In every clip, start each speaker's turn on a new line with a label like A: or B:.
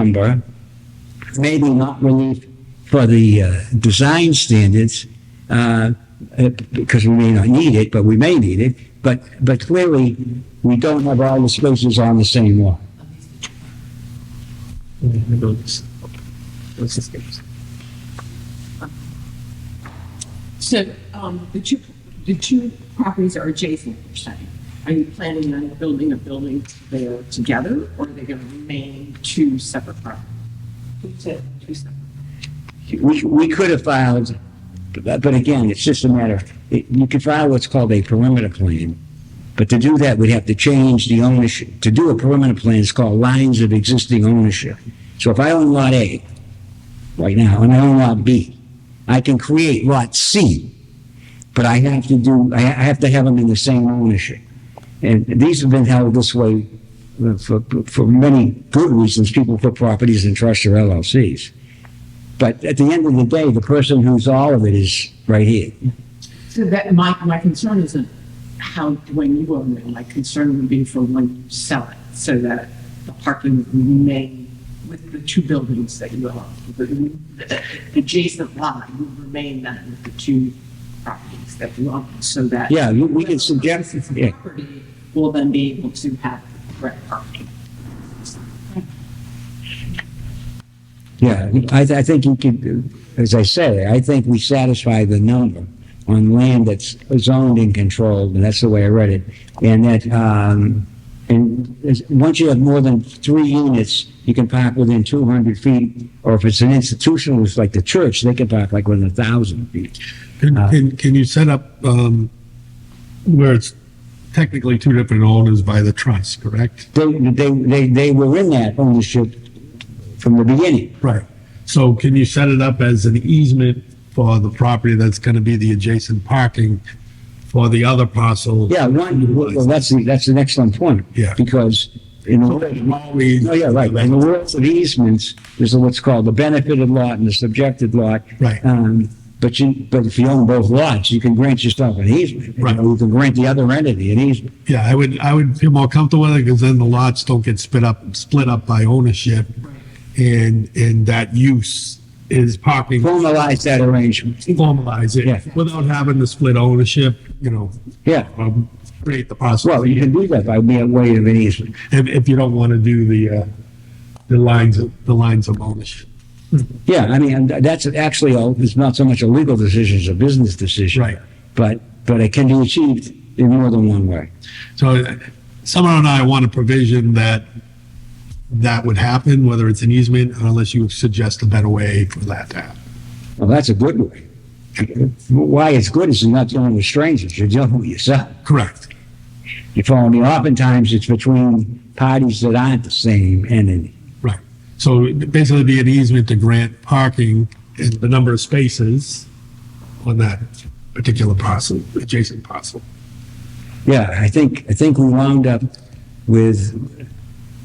A: number, maybe not relief for the uh, design standards, uh, uh, because we may not need it, but we may need it, but, but clearly, we don't have all the spaces on the same lot.
B: So, um, the two, the two properties are adjacent, you're saying? Are you planning on building a building there together, or are they gonna remain two separate properties? Two separate.
A: We, we could have filed, but but again, it's just a matter, of- it- you could file what's called a perimeter plan, but to do that, we'd have to change the ownership. To do a perimeter plan is called lines of existing ownership. So if I own Lot A right now, and I own Lot B, I can create Lot C, but I have to do, I I have to have them in the same ownership. And these have been held this way uh, for, for many good reasons. People put properties in trusts or LLCs. But at the end of the day, the person who's all of it is right here.
B: So that, my, my concern isn't how, when you own it, my concern would be for when you sell it, so that the parking would remain with the two buildings that you own. The- The adjacent lot would remain then with the two properties that you own, so that.
A: Yeah, you- we can suggest-
B: Whoever purchases the
A: yeah.
B: Property will then be able to have correct parking.
A: Yeah, I, I think you could, as I say, I think we satisfy the number on land that's zoned and controlled, and that's the way I read it. And that, um, and is- once you have more than three units, you can park within two hundred feet. Or if it's an institutional, it's like the church, they can park like within a thousand feet.
C: Can,
A: Uh,
C: can, can you set up, um, where it's technically two different owners by the trust, correct?
A: They, they, they, they were in that ownership from the beginning.
C: Right. So can you set it up as an easement for the property that's gonna be the adjacent parking for the other parcel?
A: Yeah, one, well, that's the, that's an excellent point.
C: Yeah.
A: Because in the,
C: Always-
A: no, Oh, yeah, right, in the world of easements, there's what's called the benefited lot and the subjected lot.
C: Right.
A: Um, but you, but if you own both lots, you can grant yourself an easement. You
C: Right.
A: know, You can grant the other entity an easement.
C: Yeah, I would, I would feel more comfortable with it, because then the lots don't get split up, split up by ownership. And, and that use is parking,
A: Formalize that arrangement.
C: formalize
A: Yeah.
C: it, without having to split ownership, you know,
A: Yeah,
C: um, create the parcel.
A: well, you can do that by way of an easement.
C: if, if you don't want to do the, uh, the lines, of- the lines of ownership.
A: Yeah, I mean, and that's actually, a- it's not so much a legal decision, it's a business decision.
C: Right.
A: But, but it can be achieved in more than one way.
C: So uh, someone and I want a provision that that would happen, whether it's an easement, unless you suggest a better way for that to happen.
A: Well, that's a good way. Why it's good is you're not dealing with strangers, you're dealing with yourself.
C: Correct.
A: You follow me? Oftentimes it's between parties that aren't the same entity.
C: Right. So it'd basically be an easement to grant parking and the number of spaces on that particular parcel, adjacent parcel.
A: Yeah, I think, I think we wound up with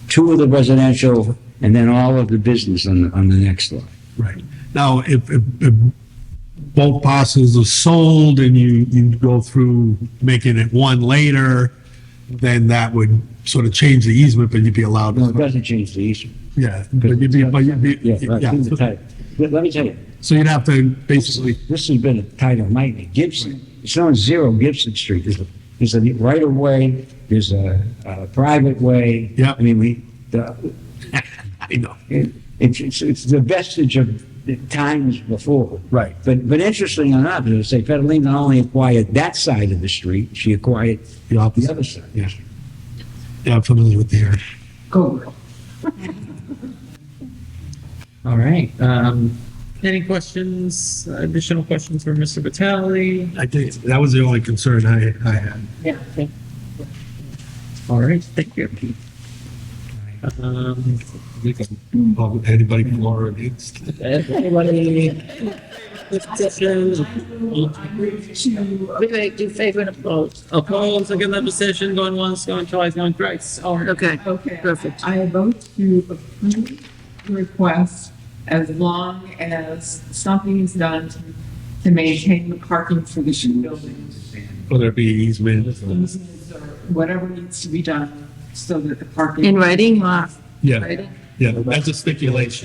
A: two of the residential and then all of the business on, the on the next lot.
C: Right. Now, if, if, if both parcels are sold and you, you go through making it one later, then that would sort of change the easement, but you'd be allowed.
A: No, it doesn't change the issue.
C: Yeah, but you'd be, but you'd be,
A: Yeah, right,
C: yeah.
A: it's a title. Let let me tell you,
C: So you'd have to basically,
A: this has been a tight of nightmare. Gibson, it's on zero Gibson Street. There's a, there's a right of way, there's a, a private way.
C: Yeah.
A: I mean, we, the,
C: you know,
A: it- it's, it's, it's the vestige of the times before.
C: Right.
A: But, but interesting enough, as I say, Federline not only acquired that side of the street, she acquired
C: the
A: the
C: opposite.
A: other side.
C: Yeah. Yeah, I'm familiar with the area.
B: Go, Will.
D: All right, um, any questions, additional questions for Mr. Vitale?
C: I think that was the only concern I, I had.
B: Yeah. okay.
D: All right, thank you. Um,
C: We can involve Anybody for or against?
D: anybody? Decisions,
B: I agree to
E: We make do favor and oppose.
D: opposed, against that decision, going once, going twice, going thrice, all right.
E: Okay,
B: Okay.
E: Perfect.
B: I vote to approve the request as long as something is done to- to maintain the parking for the shoe building.
C: Whether it be easement. or-
B: easements or Whatever needs to be done so that the parking.
E: in writing or
C: Yeah.
E: writing?
C: Yeah, that's a stipulation.